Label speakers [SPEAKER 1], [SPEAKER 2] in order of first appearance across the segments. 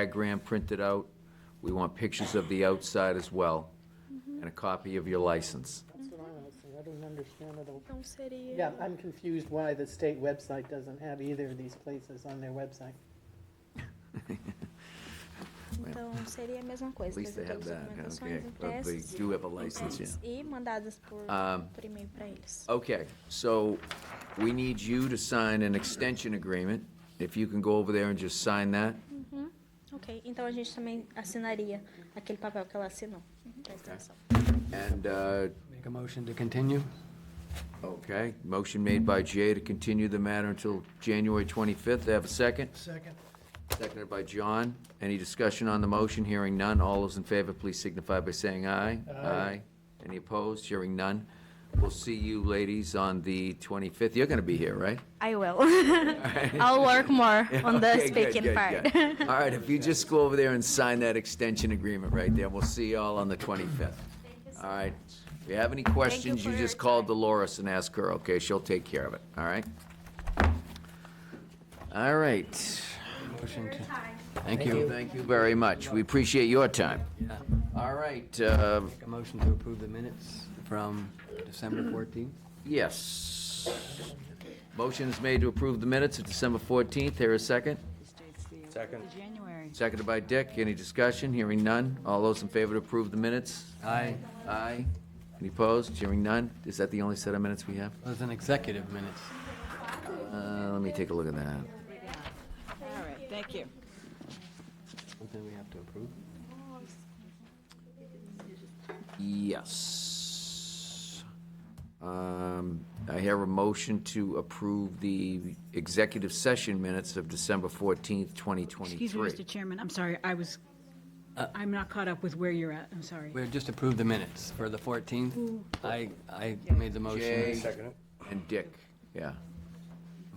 [SPEAKER 1] diagram printed out. We want pictures of the outside as well, and a copy of your license.
[SPEAKER 2] That's what I was saying, I don't understand it all.
[SPEAKER 3] Não Então seria.
[SPEAKER 2] Yeah, I'm confused why the state website doesn't have either of these places on their website.
[SPEAKER 3] Então seria a mesma
[SPEAKER 1] At
[SPEAKER 3] coisa.
[SPEAKER 1] least they
[SPEAKER 3] trazer
[SPEAKER 1] have
[SPEAKER 3] todas as
[SPEAKER 1] that, okay.
[SPEAKER 3] documentações
[SPEAKER 1] But they
[SPEAKER 3] impressas,
[SPEAKER 1] do have a license, yeah.
[SPEAKER 3] impressas e mandadas por,
[SPEAKER 1] Um,
[SPEAKER 3] por e-mail para eles.
[SPEAKER 1] Okay, so we need you to sign an extension agreement. If you can go over there and just sign that.
[SPEAKER 3] Uhum. Ok, então a gente também assinaria aquele papel que ela assinou.
[SPEAKER 1] Uhum.
[SPEAKER 3] da extensão.
[SPEAKER 1] And, uh,
[SPEAKER 4] Make a motion to continue?
[SPEAKER 1] okay, motion made by Jay to continue the matter until January 25th. They have a second?
[SPEAKER 4] Second.
[SPEAKER 1] Seconded by John. Any discussion on the motion? Hearing none. All those in favor, please signify by saying aye. Aye. Any opposed? Hearing none. We'll see you, ladies, on the 25th. You're going to be here, right?
[SPEAKER 3] I will. I'll work more on the
[SPEAKER 1] Okay, good,
[SPEAKER 3] speaking
[SPEAKER 1] good,
[SPEAKER 3] part.
[SPEAKER 1] good. All right, if you just go over there and sign that extension agreement right there, we'll see y'all on the 25th. All right. If you have any questions, you just call Dolores and ask her, okay? She'll take care of it, all right? All right.
[SPEAKER 4] Motion to,
[SPEAKER 1] Thank you. Thank you very much. We appreciate your time. All right, uh,
[SPEAKER 4] make a motion to approve the minutes from December 14th?
[SPEAKER 1] yes. Motion is made to approve the minutes of December 14th. Here a second.
[SPEAKER 5] This dates the. Second. January.
[SPEAKER 1] Seconded by Dick. Any discussion? Hearing none. All those in favor to approve the minutes?
[SPEAKER 4] Aye.
[SPEAKER 1] Aye. Any opposed? Hearing none. Is that the only set of minutes we have?
[SPEAKER 4] Those an executive minutes.
[SPEAKER 1] Uh, let me take a look at that.
[SPEAKER 5] All right, thank you.
[SPEAKER 4] Something we have to approve?
[SPEAKER 1] Yes. Um, I hear a motion to approve the executive session minutes of December 14th, 2023.
[SPEAKER 5] Excuse me, Mr. Chairman, I'm sorry, I was, I'm not caught up with where you're at, I'm sorry.
[SPEAKER 4] We just approved the minutes for the 14th. I, I made the motion.
[SPEAKER 1] Jay and Dick, yeah.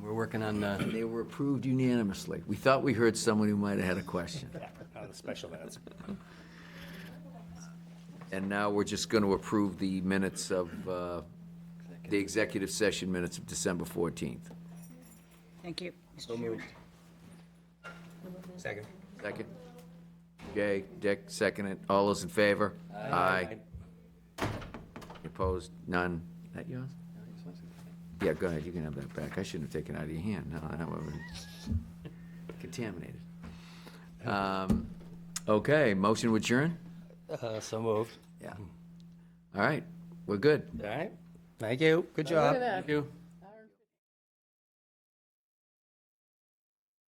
[SPEAKER 4] We're working on the,
[SPEAKER 1] They were approved unanimously. We thought we heard someone who might have had a question.
[SPEAKER 6] on the special minutes.
[SPEAKER 1] And now we're just going to approve the minutes of, uh, the executive session minutes of December 14th.
[SPEAKER 5] Thank you, Mr. Chairman.
[SPEAKER 6] Second.
[SPEAKER 1] Second? Jay, Dick, second it. All those in favor? Aye. Opposed? None? That yours? Yeah, go ahead, you can have that back. I shouldn't have taken it out of your hand, no, that would have been contaminated. Um, Okay, motion to adjourn?
[SPEAKER 7] Uh, so moved.
[SPEAKER 1] Yeah. All right, we're good.
[SPEAKER 7] All right. Thank you. Good job.
[SPEAKER 2] Look at that.
[SPEAKER 4] thank you.